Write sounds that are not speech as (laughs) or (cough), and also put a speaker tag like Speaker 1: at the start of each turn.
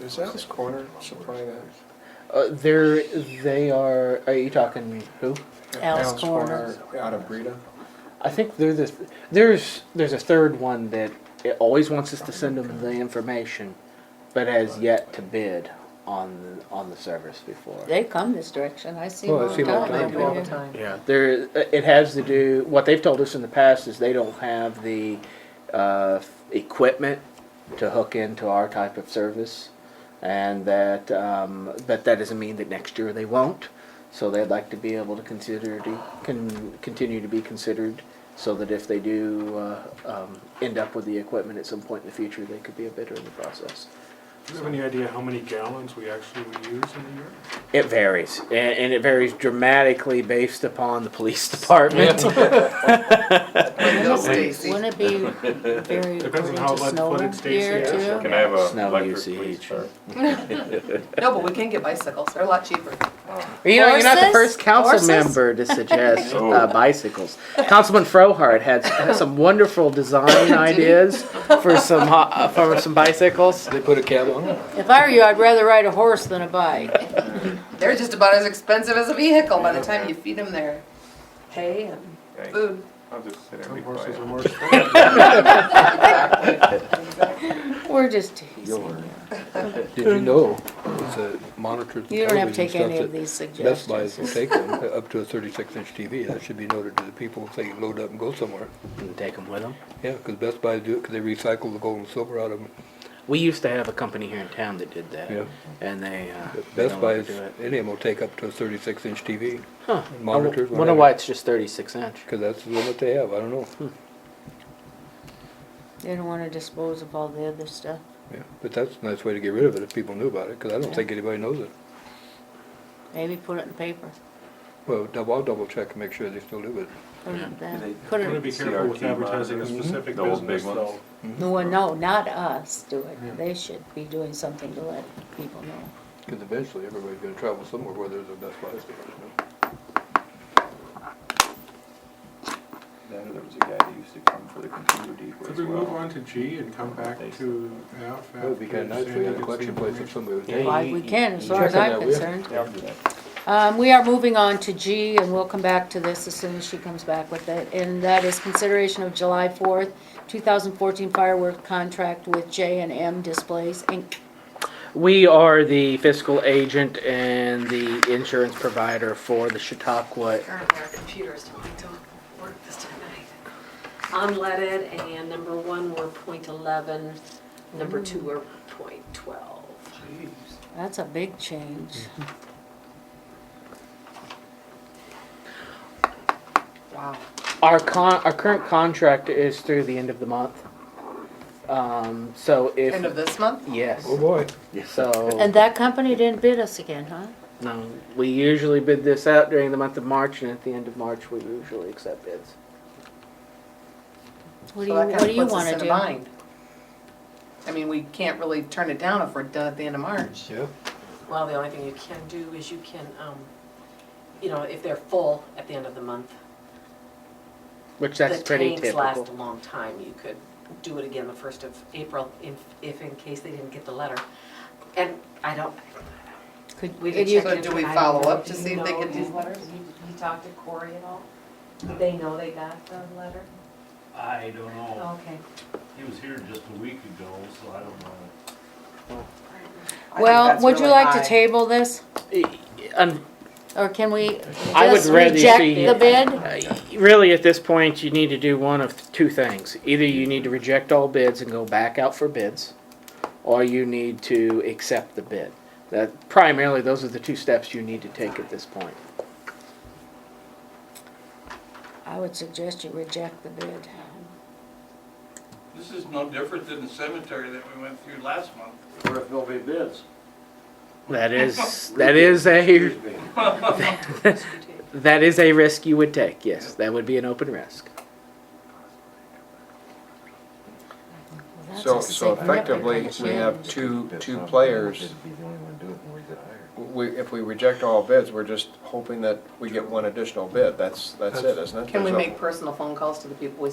Speaker 1: Is Al's Corner supplying that?
Speaker 2: Uh, they're, they are, are you talking who?
Speaker 3: Al's Corner.
Speaker 1: Out of Breda?
Speaker 2: I think they're the, there's, there's a third one that it always wants us to send them the information, but has yet to bid on, on the service before.
Speaker 3: They come this direction, I see them
Speaker 2: Well, I
Speaker 3: all
Speaker 2: see
Speaker 3: the
Speaker 2: them all
Speaker 3: time.
Speaker 2: the time.
Speaker 3: over
Speaker 2: All the
Speaker 3: here.
Speaker 2: Yeah, there, uh, it has to do, what they've told us in the past is they don't have the, uh, equipment to hook into our type of service. And that, um, but that doesn't mean that next year they won't. So they'd like to be able to consider, to, can, continue to be considered so that if they do, uh, um, end up with the equipment at some point in the future, they could be a bidder in the process.
Speaker 4: Do you have any idea how many gallons we actually would use in a year?
Speaker 2: It varies, and, and it varies dramatically based upon the police (laughs) department.
Speaker 3: Wouldn't it be very
Speaker 4: Depends
Speaker 3: according
Speaker 4: on how
Speaker 3: to
Speaker 4: much
Speaker 3: snow
Speaker 4: footage Stacy
Speaker 3: here
Speaker 4: has.
Speaker 3: too?
Speaker 5: Can I have a
Speaker 2: Snow
Speaker 5: electric
Speaker 2: usage.
Speaker 5: please? sir?
Speaker 6: No, but we can get bicycles, they're a lot cheaper.
Speaker 2: You know, you're not the
Speaker 3: Horses?
Speaker 2: first council
Speaker 3: Horses?
Speaker 2: member to suggest
Speaker 7: (laughs)
Speaker 5: Oh.
Speaker 2: uh, bicycles. Councilman Frohart had, had some wonderful design ideas for some ho- uh, for some bicycles.
Speaker 1: They put a cab on it?
Speaker 3: If I were you, I'd rather ride a horse than a bike.
Speaker 6: They're just about as expensive as a vehicle by the time you feed them their hay and
Speaker 5: Okay,
Speaker 6: food.
Speaker 5: I'll just sit and
Speaker 4: Some
Speaker 5: be
Speaker 4: horses
Speaker 5: quiet.
Speaker 4: are more expensive.
Speaker 3: We're just teasing.
Speaker 7: Your- Did you know that monitors
Speaker 3: You
Speaker 7: and
Speaker 3: don't have to
Speaker 7: television
Speaker 3: take any
Speaker 7: stuff
Speaker 3: of
Speaker 7: that
Speaker 3: these
Speaker 7: Best Buys will
Speaker 3: suggestions.
Speaker 7: take them up to a thirty-six inch TV? That should be noted to the people if they load up and go somewhere.
Speaker 2: And take them with them.
Speaker 7: Yeah, because Best Buy do it because they recycle the gold and silver out of them.
Speaker 2: We used to have a company here in town that did that,
Speaker 7: Yeah.
Speaker 2: and they uh,
Speaker 7: But
Speaker 2: they
Speaker 7: Best
Speaker 2: no
Speaker 7: Buy,
Speaker 2: longer
Speaker 7: is-
Speaker 2: do it.
Speaker 7: any of them will take up to a thirty-six inch TV
Speaker 2: Huh.
Speaker 7: monitors,
Speaker 2: I wonder
Speaker 7: whatever.
Speaker 2: why it's just 36 inch.
Speaker 7: because that's the limit they have. I don't know.
Speaker 3: Hmm. They don't wanna dispose of all the other stuff.
Speaker 7: Yeah, but that's a nice way to get rid of it if people knew about it because I don't
Speaker 3: Yeah.
Speaker 7: think anybody knows it.
Speaker 3: Maybe put it in paper.
Speaker 7: Well, dou- I'll double check and make sure they still do it.
Speaker 3: Put it in
Speaker 5: They-
Speaker 3: that. Put
Speaker 4: I'm gonna be
Speaker 3: it,
Speaker 4: careful with
Speaker 5: CRT
Speaker 4: advertising a
Speaker 5: monitors.
Speaker 4: specific
Speaker 5: The old big
Speaker 4: business though.
Speaker 5: ones.
Speaker 3: well, no, not us do it. They should be doing something to let people know.
Speaker 7: Because eventually everybody's going to travel somewhere where there's a Best Buy. store,
Speaker 5: Then There was a guy that used to come for the computer depot
Speaker 4: Could
Speaker 5: as
Speaker 4: we move
Speaker 5: well.
Speaker 4: on to G and come back to F?
Speaker 7: you know. It would be kind of nice if we had a collection place if somebody was.
Speaker 2: Yeah,
Speaker 3: Why
Speaker 2: you-
Speaker 3: we
Speaker 2: you-
Speaker 3: can, as
Speaker 2: you
Speaker 3: far as
Speaker 7: check on
Speaker 3: I'm
Speaker 7: that, will you?
Speaker 3: concerned.
Speaker 5: Yeah, I'll do that.
Speaker 3: Um, we are moving on to G, and we'll come back to this as soon as she comes back with it, and that is consideration of July fourth, two thousand fourteen firework contract with J and M Displays Inc.
Speaker 2: We are the fiscal agent and the insurance provider for the Chautauqua
Speaker 8: Turn their computers don't, don't work this time of night. Unleaded, and number one were point eleven, number two were point twelve.
Speaker 3: That's a big change.
Speaker 6: Wow.
Speaker 2: Our con, our current contract is through the end of the month. Um, so if.
Speaker 6: End of this month?
Speaker 2: Yes,
Speaker 7: Oh, boy.
Speaker 3: And
Speaker 2: so,
Speaker 3: that company didn't bid us again, huh?
Speaker 2: no, we usually bid this out during the month of March, and at the end of March, we usually accept bids.
Speaker 3: What do
Speaker 6: So
Speaker 3: you,
Speaker 6: that
Speaker 3: what
Speaker 6: kind
Speaker 3: do
Speaker 6: of
Speaker 3: you
Speaker 6: puts us
Speaker 3: wanna
Speaker 6: in a
Speaker 3: do?
Speaker 6: bind. I mean, we can't really turn it down if we're done at the end of March.
Speaker 7: Yeah.
Speaker 8: Well, the only thing you can do is you can, um, you know, if they're full at the end of the month.
Speaker 2: Which that's pretty
Speaker 8: The tanks last a
Speaker 2: typical.
Speaker 8: long time, you could do it again the first of April, if, if in case they didn't get the letter. And I don't,
Speaker 3: Could,
Speaker 8: We
Speaker 3: could
Speaker 8: could
Speaker 3: you,
Speaker 8: check
Speaker 6: So do we
Speaker 8: I don't
Speaker 6: follow
Speaker 8: know.
Speaker 6: up to
Speaker 8: Do
Speaker 6: see
Speaker 8: you
Speaker 6: if they
Speaker 8: know
Speaker 6: get these
Speaker 8: if
Speaker 6: letters?
Speaker 8: He he talked to Corey at all? Did They know they got the letter?
Speaker 9: I don't know.
Speaker 8: Okay.
Speaker 9: He was here just a week ago, so I don't know.
Speaker 6: I think
Speaker 3: well,
Speaker 6: that's
Speaker 3: would you
Speaker 6: really
Speaker 3: like
Speaker 6: high.
Speaker 3: to table this,
Speaker 2: Un-
Speaker 3: or can we
Speaker 2: I would
Speaker 3: just
Speaker 2: rather
Speaker 3: reject
Speaker 2: see-
Speaker 3: the bid?
Speaker 2: uh, Really, at this point, you need to do one of two things. Either you need to reject all bids and go back out for bids, or you need to accept the bid. That primarily, those are the two steps you need to take at this point.
Speaker 3: I would suggest you reject the bid.
Speaker 10: This is no different than the cemetery that we went through last month. Where if nobody bids.
Speaker 2: That is, (laughs) that is a, (laughs) that is a risk you would take, yes. That would be an open risk.
Speaker 3: Well, that's
Speaker 1: So,
Speaker 3: a
Speaker 1: so effectively, we
Speaker 3: significant
Speaker 1: have
Speaker 3: change.
Speaker 1: two, two players.
Speaker 7: Be the only one doing it when we get hired.
Speaker 1: We, if we reject all bids, we're just hoping that we get one additional bid. That's, that's it, isn't it?
Speaker 6: Can we
Speaker 1: There's no-
Speaker 6: make personal phone calls to the people we